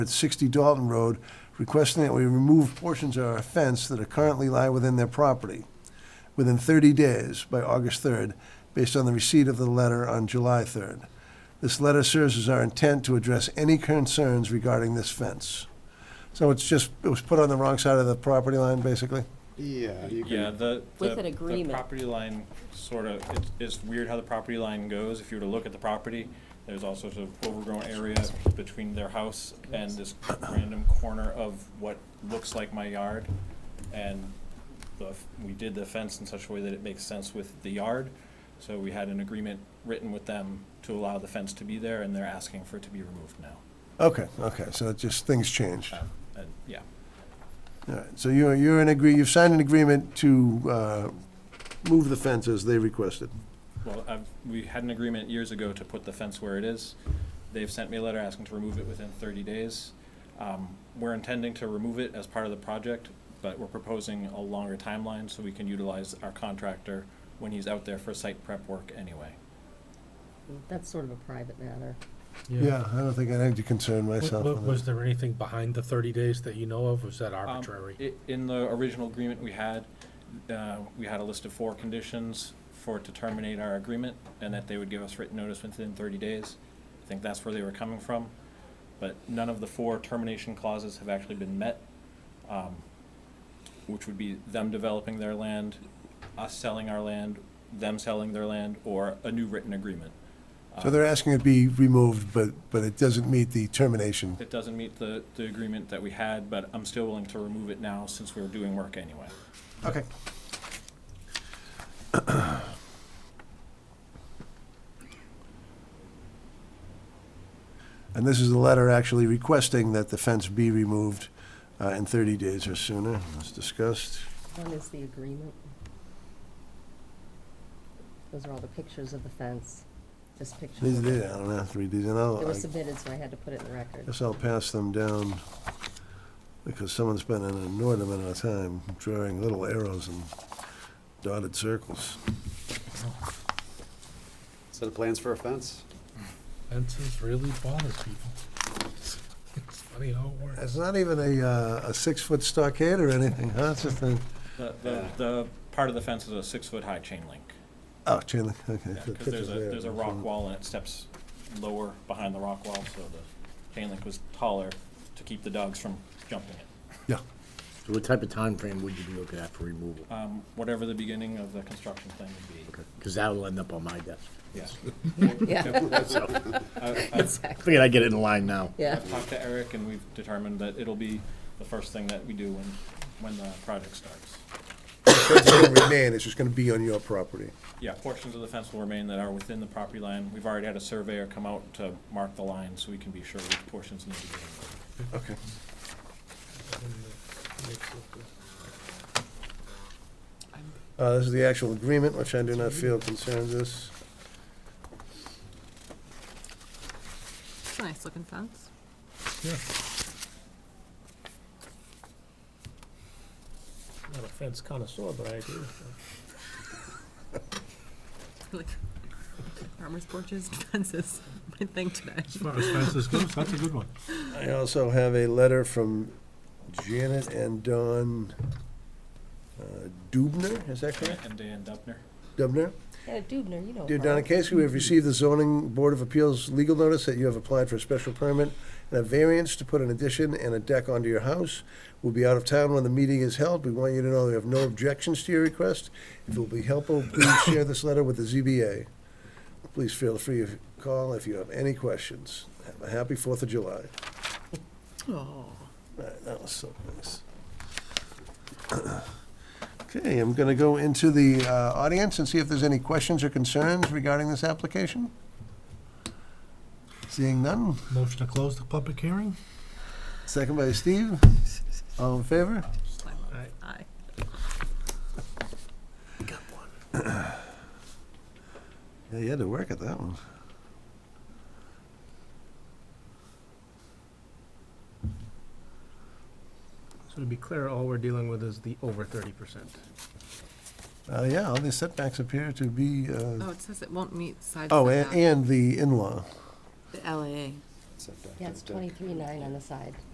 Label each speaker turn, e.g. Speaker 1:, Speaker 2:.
Speaker 1: at 60 Dalton Road, requesting that we remove portions of our fence that are currently lie within their property within 30 days by August 3rd, based on the receipt of the letter on July 3rd. This letter serves as our intent to address any concerns regarding this fence. So it's just, it was put on the wrong side of the property line, basically?
Speaker 2: Yeah, you
Speaker 3: Yeah,
Speaker 2: can,
Speaker 3: the.
Speaker 4: With
Speaker 3: the-
Speaker 4: an agreement.
Speaker 3: The property line sort of, it's, it's weird how the property line goes. If you were to look at the property, there's all sorts of overgrown area between their house and this random corner of what looks like my yard. And the, f- we did the fence in such a way that it makes sense with the yard. So we had an agreement written with them to allow the fence to be there and they're asking for it to be removed now.
Speaker 1: Okay, okay, so it just, things changed.
Speaker 3: Um, And, yeah.
Speaker 1: All right, so you're, you're in agree, you've signed an agreement to uh, move the fence as they requested.
Speaker 3: Well, I've, we had an agreement years ago to put the fence where it is. They've sent me a letter asking to remove it within thirty days. Um, we're intending to remove it as part of the project, but we're proposing a longer timeline so we can utilize our contractor when he's out there for site prep work anyway.
Speaker 4: That's sort of a private matter.
Speaker 1: Yeah, I don't think I need to concern
Speaker 5: Wa-
Speaker 1: myself
Speaker 5: wa-
Speaker 1: with
Speaker 5: Was
Speaker 1: that.
Speaker 5: there anything behind the 30 days that you know of? Was that
Speaker 3: Um,
Speaker 5: arbitrary?
Speaker 3: i- In the original agreement we had, uh, we had a list of four conditions for it to terminate our agreement, and that they would give us written notice within thirty days. I think that's where they were coming from, but none of the four termination clauses have actually been met, um, which would be them developing their land, us selling our land, them selling their land, or a new written agreement.
Speaker 1: So they're asking it be removed, but, but it doesn't meet the termination.
Speaker 3: It doesn't meet the, the agreement that we had, but I'm still willing to remove it now since we're doing work anyway.
Speaker 1: Okay. And this is the letter actually requesting that the fence be removed uh, in 30 days or sooner, as discussed.
Speaker 4: One is the agreement. Those are all the pictures of the fence, just pictures.
Speaker 1: These,
Speaker 4: of
Speaker 1: I
Speaker 4: it.
Speaker 1: don't have to read these, and
Speaker 4: It
Speaker 1: I'll, Oh, I
Speaker 4: was submitted, so I had to put it in the record.
Speaker 1: guess I'll pass them down, because someone's spent an inordinate amount of time drawing little arrows and dotted circles.
Speaker 2: set of plans for a fence.
Speaker 5: Fences really bother people. It's funny how it works.
Speaker 1: It's not even a, uh, a six-foot stockade or anything, huh? It's just a,
Speaker 3: The, the, the part of the fence is a six-foot high chain link.
Speaker 1: oh, chain link, okay. the
Speaker 3: Because there's
Speaker 1: picture's
Speaker 3: a,
Speaker 1: there.
Speaker 3: there's a rock wall and it steps lower behind the rock wall, so the chain link was taller to keep the dogs from jumping it.
Speaker 1: Yeah,
Speaker 6: So what type of time frame would you be looking at for removal?
Speaker 3: Um, whatever the beginning of the construction plan would be.
Speaker 6: Because that'll end up on my desk.
Speaker 3: Yes.
Speaker 4: Yeah,
Speaker 6: I
Speaker 4: exactly,
Speaker 6: Figured I'd get it in line now.
Speaker 4: yeah.
Speaker 3: I've talked to Eric and we've determined that it'll be the first thing that we do when, when the project starts.
Speaker 1: It's gonna remain, it's just gonna be on your property.
Speaker 3: Yeah, portions of the fence will remain that are within the property line. We've already had a surveyor come out to mark the line so we can be sure which portions need to be removed.
Speaker 1: Okay. Uh, this is the actual agreement, which I do not feel concerns us.
Speaker 7: Nice looking fence.
Speaker 5: Yeah. Not a fence connoisseur, but I agree with
Speaker 7: Like farmers' porches, fences, my thing today.
Speaker 5: As far as fences goes, that's a good one.
Speaker 1: I also have a letter from Janet and Don uh, Dubner, is that correct?
Speaker 3: And Dan Dubner?
Speaker 1: Dubner?
Speaker 4: Yeah, Uh, Dubner, you know.
Speaker 1: Dear
Speaker 4: her.
Speaker 1: Donna Casey, we have received the zoning board of appeals legal notice that you have applied for a special permit and a variance to put an addition and a deck onto your house. We'll be out of town when the meeting is held. We want you to know we have no objections to your request. If it will be helpful, please share this letter with the ZBA. Please feel free to call if you have any questions. Have a happy Fourth of July.
Speaker 7: Oh,
Speaker 1: Right, that was so nice. Okay, I'm going to go into the uh, audience and see if there's any questions or concerns regarding this application. Seeing none,
Speaker 5: Motion to close the public hearing?
Speaker 1: second by Steve. All in favor?
Speaker 7: aye.
Speaker 1: Yeah, you had to work at that one.
Speaker 8: So to be clear, all we're dealing with is the over thirty percent.
Speaker 1: Uh, Yeah, all these setbacks appear to be, uh,
Speaker 7: Oh, it says it won't meet side.
Speaker 1: oh, a-
Speaker 7: setback.
Speaker 1: and the in-law.
Speaker 7: The LAA.
Speaker 2: setback.
Speaker 4: Yeah, it's
Speaker 2: that deck.
Speaker 4: twenty-three nine on the side.